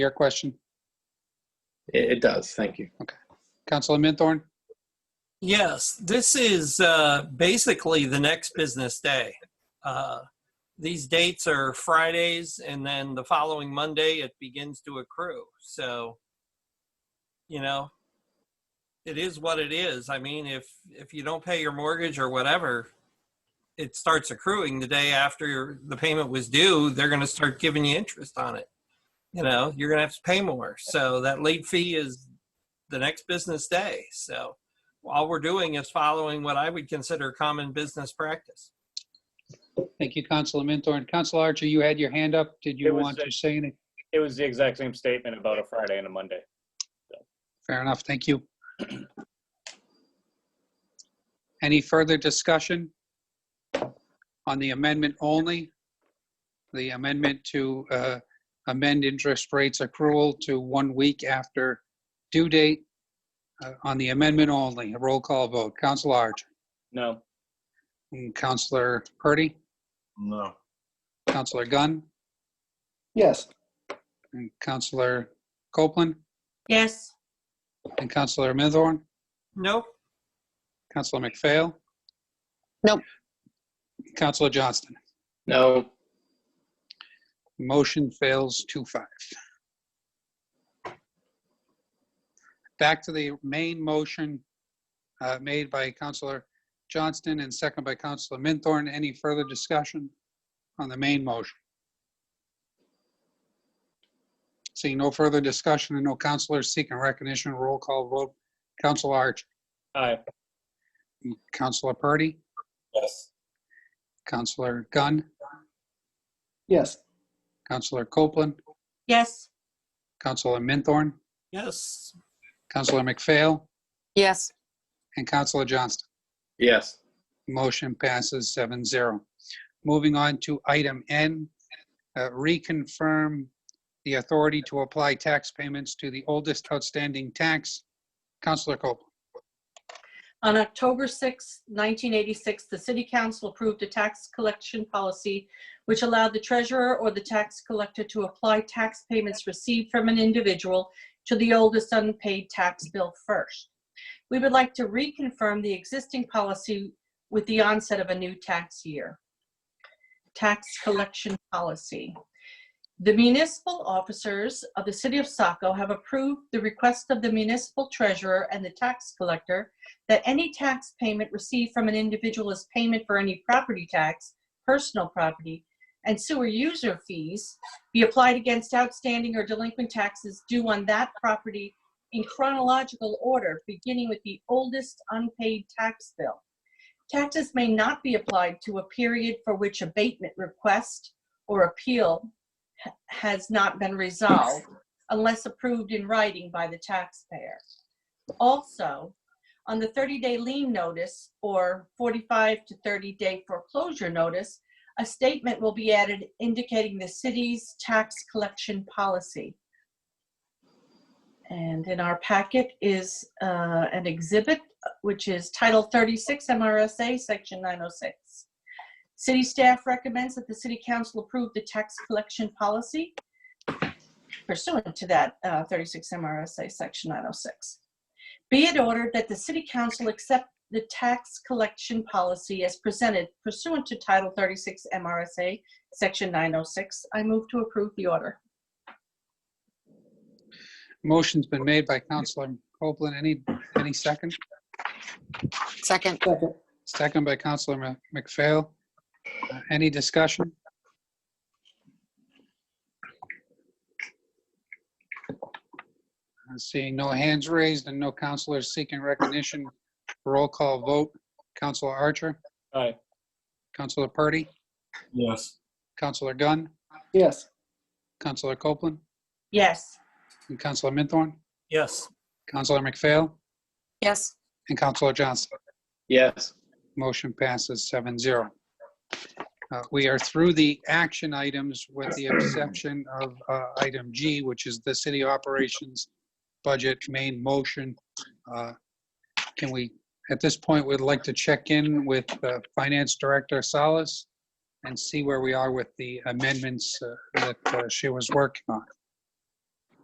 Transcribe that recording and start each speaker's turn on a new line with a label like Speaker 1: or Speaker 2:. Speaker 1: your question?
Speaker 2: It, it does. Thank you.
Speaker 1: Councilor Minthorn?
Speaker 3: Yes, this is uh, basically the next business day. Uh, These dates are Fridays, and then the following Monday, it begins to accrue. So, you know, it is what it is. I mean, if, if you don't pay your mortgage or whatever, it starts accruing the day after your- the payment was due, they're going to start giving you interest on it. You know, you're going to have to pay more. So that late fee is the next business day. So all we're doing is following what I would consider common business practice.
Speaker 1: Thank you, Councilor Minthorn. Councilor Archer, you had your hand up. Did
Speaker 4: It
Speaker 1: you
Speaker 4: was
Speaker 1: want
Speaker 4: a-
Speaker 1: to say anything?
Speaker 4: It was the exact same statement about a Friday and a Monday.
Speaker 1: Fair enough, thank you. Any further discussion on the amendment only? The amendment to uh, amend interest rates accrual to one week after due date uh, on the amendment only, a roll call vote. Counselor Archer?
Speaker 4: No,
Speaker 1: and Mm, Counselor Purdy?
Speaker 5: No.
Speaker 1: Counselor Gunn?
Speaker 5: Yes.
Speaker 1: And Counselor Copeland?
Speaker 6: Yes,
Speaker 1: And Counselor Minthorn?
Speaker 3: Nope.
Speaker 1: Counselor McPhail?
Speaker 7: Nope.
Speaker 1: Counselor Johnston?
Speaker 2: No,
Speaker 1: Motion fails two five. Back to the main motion uh, made by Counselor Johnston and second by Counselor Minthorn. Any further discussion on the main motion? Seeing no further discussion and no counselors seeking recognition, roll call vote. Counselor Archer?
Speaker 4: aye.
Speaker 1: Counselor Purdy?
Speaker 4: Yes.
Speaker 1: Counselor Gunn?
Speaker 5: Yes.
Speaker 1: Counselor Copeland?
Speaker 6: yes,
Speaker 1: Counselor Minthorn?
Speaker 3: Yes.
Speaker 1: Counselor McPhail?
Speaker 7: Yes.
Speaker 1: And Counselor Johnston.
Speaker 2: yes.
Speaker 1: Motion passes 7-0. Moving on to item N, uh, reconfirm the authority to apply tax payments to the oldest outstanding tax. Counselor Copeland.
Speaker 6: on October 6, 1986, the city council approved a tax collection policy which allowed the treasurer or the tax collector to apply tax payments received from an individual to the oldest unpaid tax bill first. We would like to reconfirm the existing policy with the onset of a new tax year. Tax collection policy. The municipal officers of the city of Saco have approved the request of the municipal treasurer and the tax collector that any tax payment received from an individual is payment for any property tax, personal property, and sewer user fees be applied against outstanding or delinquent taxes due on that property in chronological order, beginning with the oldest unpaid tax bill. Taxes may not be applied to a period for which abatement request or appeal ha- has not been resolved unless approved in writing by the taxpayer. Also, on the 30-day lien notice or 45 to 30-day foreclosure notice, a statement will be added indicating the city's tax collection policy. And in our packet is uh, an exhibit, which is Title 36 MRSA, Section 906. City staff recommends that the city council approve the tax collection policy pursuant to that uh, 36 MRSA, Section 906. Be it ordered that the city council accept the tax collection policy as presented pursuant to Title 36 MRSA, Section 906. I move to approve the order.
Speaker 1: Motion's been made by Counselor Copeland. Any, any second?
Speaker 7: Second.
Speaker 1: Second by Counselor Mc- McPhail. Uh, Any discussion? Uh, Seeing no hands raised and no counselors seeking recognition, roll call vote. Counselor Archer,
Speaker 4: Aye.
Speaker 1: Counselor Purdy,
Speaker 5: Yes.
Speaker 1: Counselor Gunn,
Speaker 5: Yes.
Speaker 1: Counselor Copeland,
Speaker 6: Yes.
Speaker 1: and Counselor Minthorn,
Speaker 3: Yes.
Speaker 1: Counselor McPhail,
Speaker 7: Yes.
Speaker 1: and Counselor Johnston.
Speaker 2: Yes.
Speaker 1: Motion passes 7-0. Uh, We are through the action items with the exception of uh, item G, which is the city operations budget main motion. Uh, Can we, at this point, we'd like to check in with uh, Finance Director Salas and see where we are with the amendments uh, that uh, she was working on.